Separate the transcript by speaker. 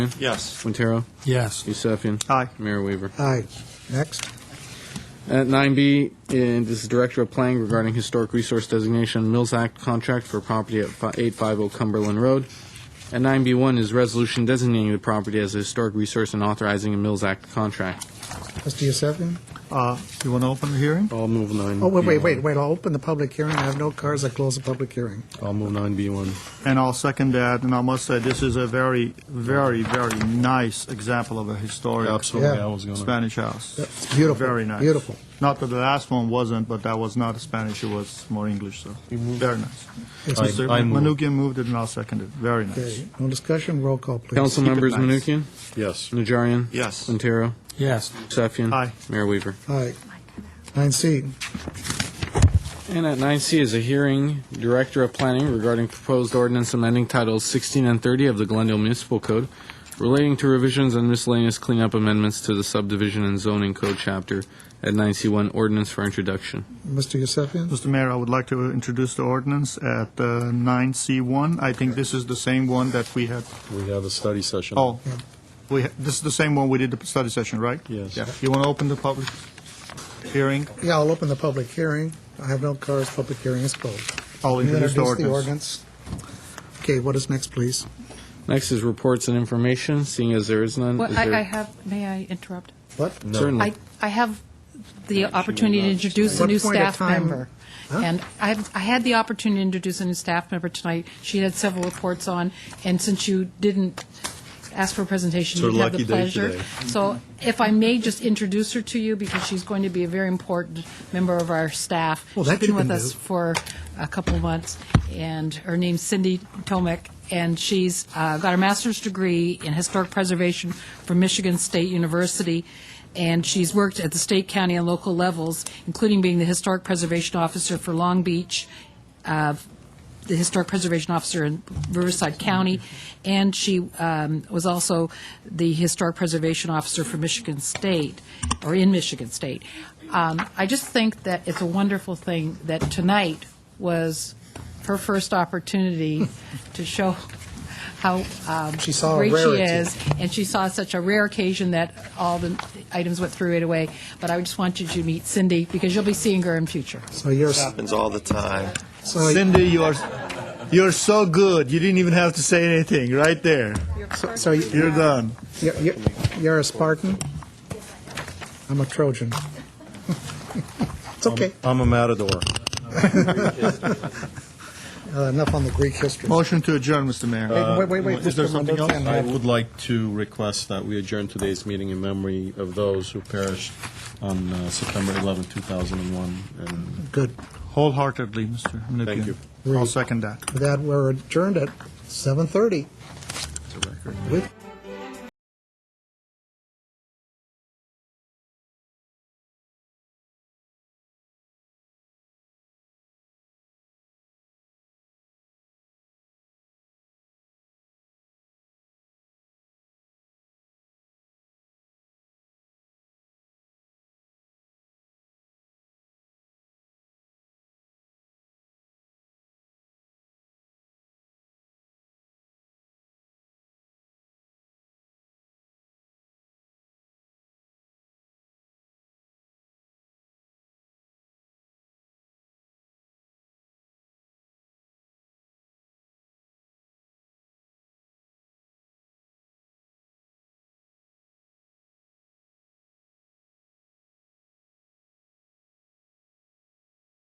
Speaker 1: Yes.
Speaker 2: Quintero,
Speaker 3: Yes.
Speaker 2: Yusefian.
Speaker 4: Aye.
Speaker 2: Mayor Weaver.
Speaker 4: Aye. Next.
Speaker 2: At 9B, and this is Director of Planning regarding Historic Resource Designation Mills Act contract for property at fi- 850 Cumberland Road. At 9B1 is resolution designating the property as a historic resource and authorizing a Mills Act contract.
Speaker 4: Mr. Yusefian?
Speaker 5: Uh, You want to open the hearing?
Speaker 2: I'll move 9B1.
Speaker 4: Oh, wait, wait, wait, wait, I'll open the public hearing. I have no cars. I close the public hearing.
Speaker 2: I'll move 9B1.
Speaker 5: And I'll second that, and I must say, this is a very, very, very nice example of a historic
Speaker 4: Absolutely, Yeah. I
Speaker 2: was
Speaker 5: Spanish house.
Speaker 4: It's beautiful.
Speaker 5: Very nice.
Speaker 4: Beautiful.
Speaker 5: Not that the last one wasn't, but that was not Spanish, it was more English, so, very nice.
Speaker 4: Yes,
Speaker 1: I-
Speaker 5: Mr.
Speaker 1: I move.
Speaker 5: Menuchyan moved it, and I'll second it, very nice.
Speaker 4: Okay, no discussion, roll call, please.
Speaker 2: Council members
Speaker 5: nice.
Speaker 2: Menuchyan,
Speaker 1: Yes.
Speaker 2: Najarian,
Speaker 1: Yes.
Speaker 2: Quintero,
Speaker 3: Yes.
Speaker 2: Yusefian.
Speaker 5: Aye.
Speaker 2: Mayor Weaver.
Speaker 4: Aye. Nine C,
Speaker 2: And at 9C is a hearing, Director of Planning regarding proposed ordinance amending Titles 16 and 30 of the Glendale Municipal Code relating to revisions and miscellaneous cleanup amendments to the subdivision and zoning code chapter at 9C1 ordinance for introduction.
Speaker 4: Mr. Yusefian?
Speaker 5: Mr. Mayor, I would like to introduce the ordinance at uh, 9C1. I think this is the same one that we had,
Speaker 1: We have a study session.
Speaker 5: oh, we, ha- this is the same one we did the study session, right?
Speaker 1: Yes.
Speaker 5: Yeah. You want to open the public hearing?
Speaker 4: Yeah, I'll open the public hearing. I have no cars, public hearing is closed.
Speaker 5: I'll
Speaker 4: Can you
Speaker 5: introduce the
Speaker 4: the
Speaker 5: ordinance.
Speaker 4: ordinance? Okay, what is next, please?
Speaker 2: Next is reports and information, seeing as there is none.
Speaker 6: Well,
Speaker 2: is
Speaker 6: I,
Speaker 2: there-
Speaker 6: I have, may I interrupt?
Speaker 4: What?
Speaker 2: Certainly.
Speaker 6: I, I have the opportunity to introduce a
Speaker 4: What
Speaker 6: new
Speaker 4: point of
Speaker 6: staff
Speaker 4: time-
Speaker 6: member. And I've, I had the opportunity to introduce a new staff member tonight. She had several reports on, and since you didn't ask for a presentation,
Speaker 1: It's her
Speaker 6: you have the
Speaker 1: lucky day today.
Speaker 6: pleasure. So if I may just introduce her to you, because she's going to be a very important member of our staff.
Speaker 4: Well, that
Speaker 6: She's
Speaker 4: you
Speaker 6: been with
Speaker 4: can
Speaker 6: us
Speaker 4: do.
Speaker 6: for a couple of months, and her name's Cindy Tomek, and she's uh, got her master's degree in historic preservation from Michigan State University, and she's worked at the state, county, and local levels, including being the historic preservation officer for Long Beach, uh, the historic preservation officer in Riverside County, and she um, was also the historic preservation officer for Michigan State, or in Michigan State. Um, I just think that it's a wonderful thing that tonight was her first opportunity to show how um,
Speaker 4: She saw a
Speaker 6: great she
Speaker 4: rarity.
Speaker 6: is, and she saw such a rare occasion that all the items went through right away. But I just want you to meet Cindy, because you'll be seeing her in future.
Speaker 4: So you're, so
Speaker 1: Happens all the time.
Speaker 5: Cindy, you're you're so good. You didn't even have to say anything right there.
Speaker 4: so you-
Speaker 5: You're done.
Speaker 4: you're, you're- you're a Spartan? I'm a Trojan. It's okay,
Speaker 1: I'm a matador.
Speaker 4: Uh, enough on the Greek history.
Speaker 5: Motion to adjourn, Mr. Mayor.
Speaker 4: Wait,
Speaker 1: Uh,
Speaker 4: wait, wait,
Speaker 5: Is there
Speaker 4: Mr.
Speaker 5: something else?
Speaker 4: Mendoza.
Speaker 1: I would like to request that we adjourn today's meeting in memory of those who perished on uh, September 11, 2001. And
Speaker 4: Good.
Speaker 5: Wholeheartedly, Mr. Menuchyan.
Speaker 1: Thank you.
Speaker 5: I'll second that.
Speaker 4: With that, we're adjourned at 7:30.
Speaker 1: it's a record.
Speaker 4: With-